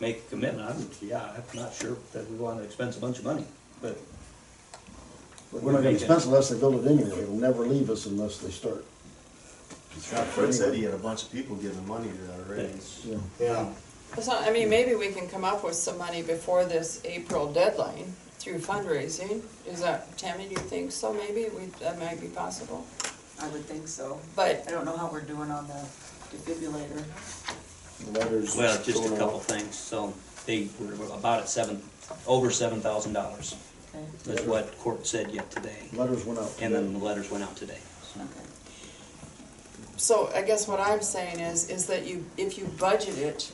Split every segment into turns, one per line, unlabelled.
make a commitment, I'm, yeah, I'm not sure that we wanna expense a bunch of money, but
We're not gonna expense unless they build it anyway, it'll never leave us unless they start.
Scott Fred said he had a bunch of people giving money to that already.
it's,
Yeah.
Yeah,
It's not- I mean, maybe we can come up with some money before this April deadline through fundraising. Is that, Tammy, do you think so, maybe? We, that might be possible.
I would think so.
But-
I don't know how we're doing on the defibrillator.
Letters
well, just a
going out.
couple things, so they were about at seven, over seven thousand dollars,
Okay,
is what court said yet today,
Letters went out.
and then the letters went out today. so.
okay.
So I guess what I'm saying is, is that you, if you budget it,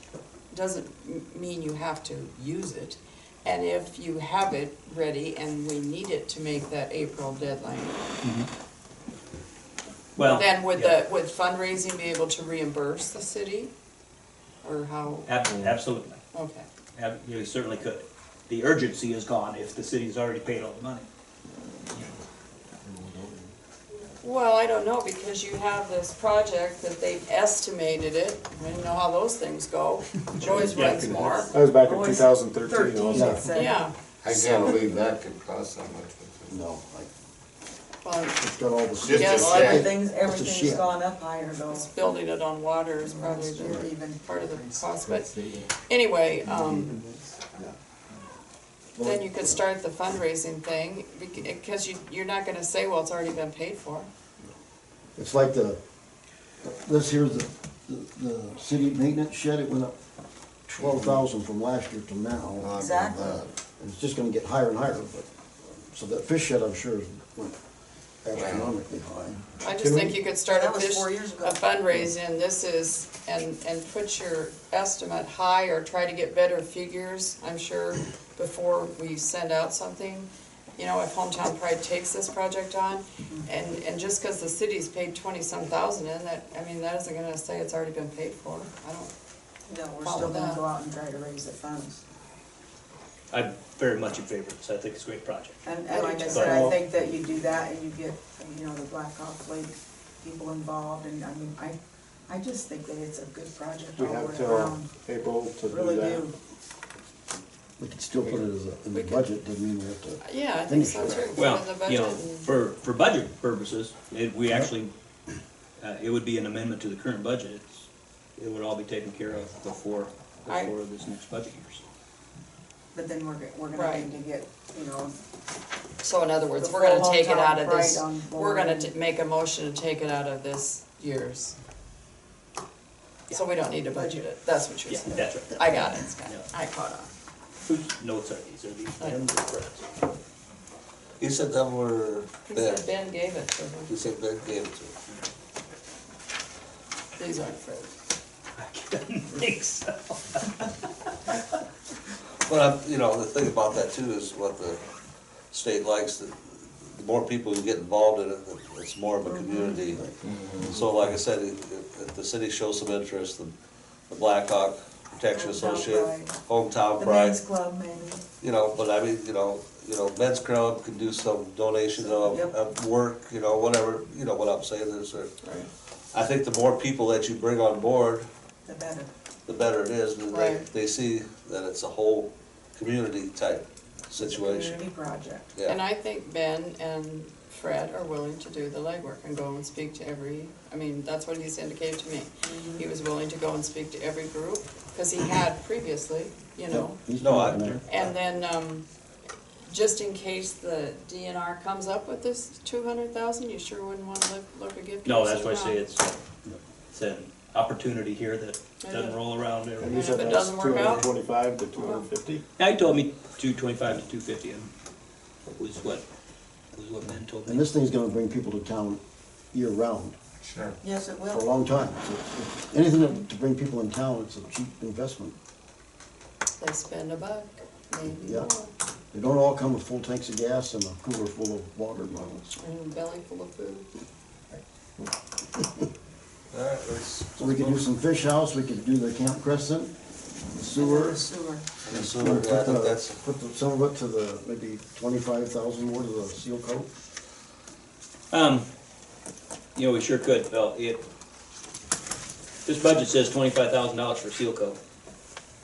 doesn't m- mean you have to use it. And if you have it ready and we need it to make that April deadline,
Well,
then would
yeah,
the, would fundraising be able to reimburse the city? Or how,
ab- Absolutely,
okay.
Ab- you certainly could. The urgency is gone if the city's already paid all the money.
Well, I don't know, because you have this project that they've estimated it, I don't know how those things go, it always runs more,
That was back in
Always
two thousand thirteen
it
also.
said.
yeah.
I can't believe that could cost that much.
No, I,
Well,
it's got all the.
Just
Yes.
Well, everything's,
shit.
everything's gone up higher though.
it's building it on water is probably
It's
the
even-
part of the cost, but anyway, um, then you could start the fundraising thing, because you, you're not gonna say, well, it's already been paid for.
It's like the, this here's the, the, the city maintenance shed, it went up twelve thousand from last year to
Oh,
now.
Exactly.
And It's just gonna get higher and higher, but, so that fish shed, I'm sure, went astronomically high.
I
Can
just
we-
think you could start a
That was
fish,
four years ago.
a fundraising, this is, and, and put your estimate high or try to get better figures, I'm sure, before we send out something. You know, if Hometown Pride takes this project on, and, and just because the city's paid twenty-some thousand in that, I mean, that isn't gonna say it's already been paid for, I don't.
No, we're
Follow
still gonna
that.
go out and try to raise the funds.
I'm very much in favor of this, I think it's a great project.
And,
I do
and like I
too.
said, I
Well-
think that you do that and you get, you know, the Black Hawk Lake people involved and I mean, I, I just think that it's a good project
We
all
have
the way
till
around.
April to do
Really
that.
do.
We could still put it as a, in the budget, doesn't mean we have to.
Yeah, I think so
Finish it.
too,
Well,
for the
you
budget
know,
and-
for, for budget purposes, it, we actually, uh, it would be an amendment to the current budget. It's- It would all be taken care of before,
I-
before this next budget year. so.
But then we're, g- we're gonna
Right.
need to get, you know,
So in other words,
The
we're gonna
full
take it out
hometown
of this,
pride on
we're gonna
board.
t- make a motion to take it out of this year's. So we don't need to budget it, that's what you're
Yeah,
saying.
that's right.
I got it, Scott.
Yeah.
I caught on.
Whose notes are these? Are these Ben's or Brett's?
You said that were
He
Ben,
said Ben gave it to him,
you said Ben gave it to him.
these aren't Fred's.
Think so.
But, I'm- you know, the thing about that too is what the state likes, the the more people who get involved in it, the- it's more
Mm-hmm.
of a community. So like I said, if if- if the city shows some interest, the the Black Hawk Protection
Hometown
Association,
Pride.
Hometown
the
Pride,
men's club maybe.
you know, but I mean, you know, you know, men's club can do some donations of,
Yep.
of work, you know, whatever, you know what I'm saying, there's a,
Right.
I think the more people that you bring on board,
The better.
the better it is, and they,
Right.
they see that it's a whole community type situation,
Community project.
And
yeah.
I think Ben and Fred are willing to do the legwork and go and speak to every, I mean, that's what he's indicated to me.
Mm-hmm.
He was willing to go and speak to every group, cause he had previously, you know.
He's
No, I-
not there.
And then, um, just in case the DNR comes up with this two hundred thousand, you sure wouldn't wanna look, look a gift.
No,
horse
that's
in
why I
the
say
mouth.
it's, it's an opportunity here that doesn't roll around
And
every.
you said
If it
that's
doesn't
two
work
hundred
out-
and twenty-five to two hundred and fifty?
Now, he told me two twenty-five to two fifty, and was what, was what Ben told
And
me.
this thing's gonna bring people to town year-round
Sure.
Yes, it
for a
will.
long time. So it's- Anything that- to bring people in town, it's a cheap investment.
They spend a buck, maybe
Yeah.
more,
They don't all come with full tanks of gas and a cooler full of water bottles.
and a belly full of food.
All right, let's.
So we could do some fish house, we could do the Camp Crescent, the sewer.
Sewer.
And so,
and
yeah, I
Put
think
the,
that's,
put the- some of it to the, maybe twenty-five thousand more to the seal coat.
Um, you know, we sure could, Bill, it, this budget says twenty-five thousand dollars for seal coat.